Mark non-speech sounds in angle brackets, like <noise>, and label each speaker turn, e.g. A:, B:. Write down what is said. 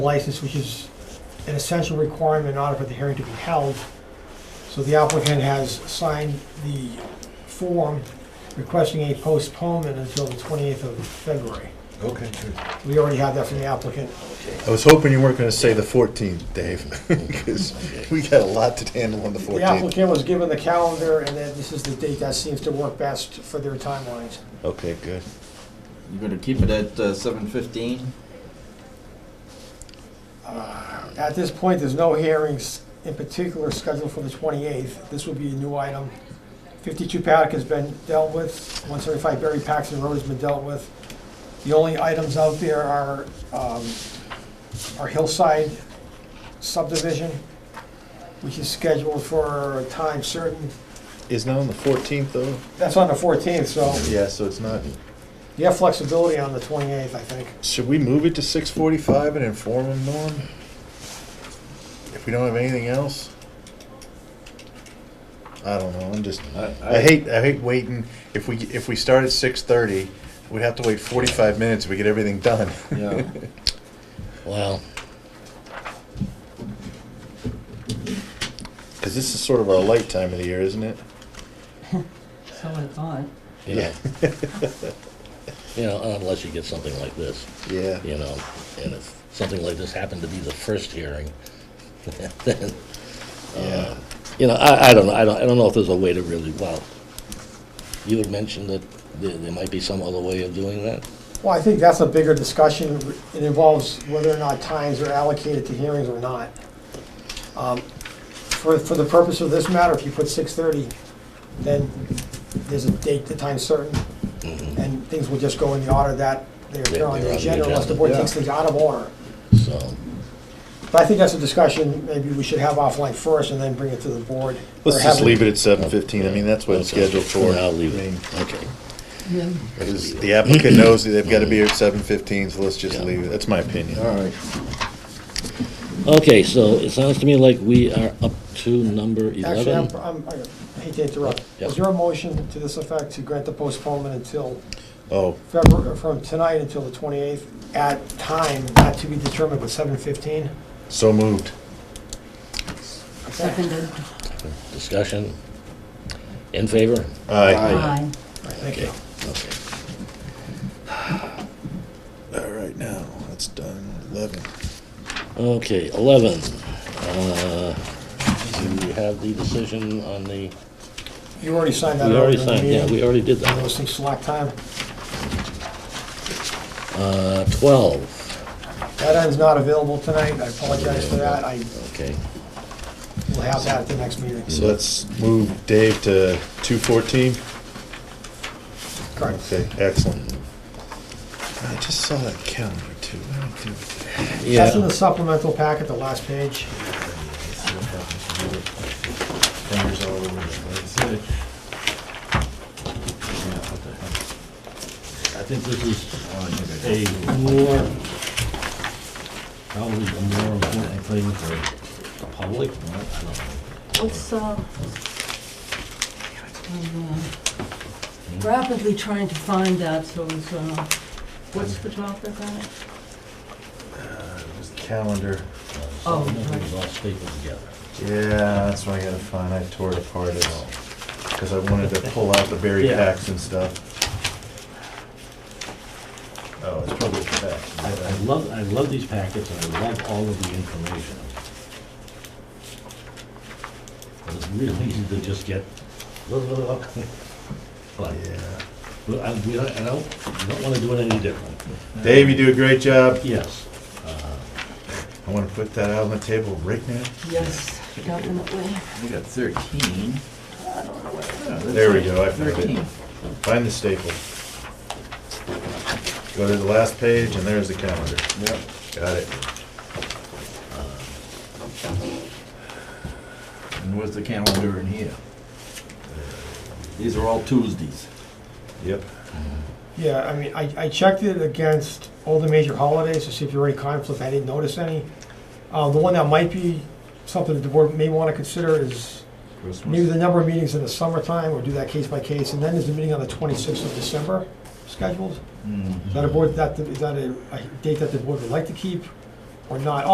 A: license, which is an essential requirement in order for the hearing to be held. So the applicant has signed the form requesting a postponement until the 28th of February.
B: Okay, good.
A: We already have that from the applicant.
B: Okay.
C: I was hoping you weren't going to say the 14th, Dave, <laughs> because we got a lot to handle on the
A: The
C: 14th.
A: applicant was given the calendar, and then this is the date that seems to work best for their timelines.
C: Okay, good.
D: You gonna keep it at uh, seven fifteen?
A: At this point, there's no hearings in particular scheduled for the 28th. This would be a new item. 52 Paddock has been dealt with, 175 Berry Paxton Road has been dealt with. The only items out there are, um, our Hillside subdivision, which is scheduled for a time certain.
C: Is not on the 14th, though?
A: That's on the 14th, so
C: Yeah, so it's not.
A: you have flexibility on the 28th, I think.
C: Should we move it to 6:45 and inform them, Norm? If we don't have anything else? I don't know, I'm just, I hate, I hate waiting. If we, if we start at 6:30, we'd have to wait 45 minutes if we get everything done.
D: Yeah.
C: Wow. Because this is sort of our light time of the year, isn't it?
E: So I thought.
F: You know, <laughs> you know, unless you get something like this,
C: Yeah.
F: you know, and if something like this happened to be the first hearing, <laughs> then, Uh,
C: Yeah.
F: you know, I, I don't know, I don't, I don't know if there's a way to really, well, you had mentioned that there, there might be some other way of doing that?
A: Well, I think that's a bigger discussion. It involves whether or not times are allocated to hearings or not. Um, For, for the purpose of this matter, if you put 6:30, then there's a date, the time certain,
F: Mhm.
A: and things will just go in the order that they appear on
F: They're on
A: the
F: the
A: agenda unless the
F: agenda,
A: board
C: yeah.
A: takes things out of order.
F: So,
A: But I think that's a discussion maybe we should have offline first and then bring it to the board. or
C: Let's
A: have
C: just leave it at 7:15. I mean, that's what it's
F: Okay.
C: scheduled for.
F: I'll leave
C: I mean,
F: it, okay.
C: because The applicant knows that they've got to be here at 7:15, so let's just
F: Yeah.
C: leave it. That's my opinion.
D: All right.
F: Okay, so it sounds to me like we are up to number
A: Actually,
F: eleven.
A: I'm- I'm, I hate to interrupt.
F: Yep.
A: Is there a motion to this effect to grant the postponement until
C: Oh,
A: February, from tonight until the 28th, at time not to be determined, but 7:15.
C: so moved.
E: Seconded.
F: Discussion? In favor?
C: Aye.
E: Aye.
A: Thank you.
F: Okay.
C: All right, now, that's done. 11.
F: Okay, 11. Uh, Do we have the decision on the,
A: You already signed that.
F: we
A: earlier
F: already
A: in the
F: signed, yeah,
A: meeting.
F: we already did
A: One of Those
F: that.
A: things slack time.
F: Uh, 12,
A: That end's not available tonight. I apologize for that. I
F: okay.
A: will have that at the next meeting.
C: So let's move Dave to 2:14.
A: Correct.
C: Okay, excellent. I just saw that calendar too. What do I do with that?
A: That's in
F: Yeah,
A: the supplemental packet, the last page.
B: Fingers all over the place.
G: I think this is uh,
B: Oh, I think I-
G: a more, probably a more important thing for the public. I don't know.
E: Let's, uh, I'm, uh, rapidly trying to find that, so it's, uh, what's the topic on it?
B: It was the calendar.
E: Oh,
G: Nothing
E: right.
G: is all stapled together.
B: Yeah, that's what I gotta find. I tore it apart at all. Because I wanted to pull out the berry
G: Yeah.
B: packs and stuff. Oh, it's probably the back.
G: I, I love, I love these packets, and I love all of the information. But it's really easy to just get, <laughs> but,
B: Yeah.
G: but I, we don't, I don't, don't wanna do it any different.
B: Dave, you do a great job.
G: Yes,
B: I wanna put that out on the table right now.
E: Yes, definitely.
D: We got thirteen.
B: There we go, I found it.
D: 13.
B: Find the staple. Go to the last page and there's the calendar.
D: Yep.
B: Got it.
D: And where's the calendar in here? These are all Tuesdays.
B: Yep.
A: Yeah, I mean, I, I checked it against all the major holidays to see if there were any conflict. I didn't notice any. Uh, The one that might be something that the board may want to consider is Maybe
D: Christmas.
A: the number of meetings in the summertime, or do that case by case, and then there's a meeting on the 26th of December scheduled.
D: Mhm.
A: Is that a board, that, is that a a date that the board would like to keep? or not.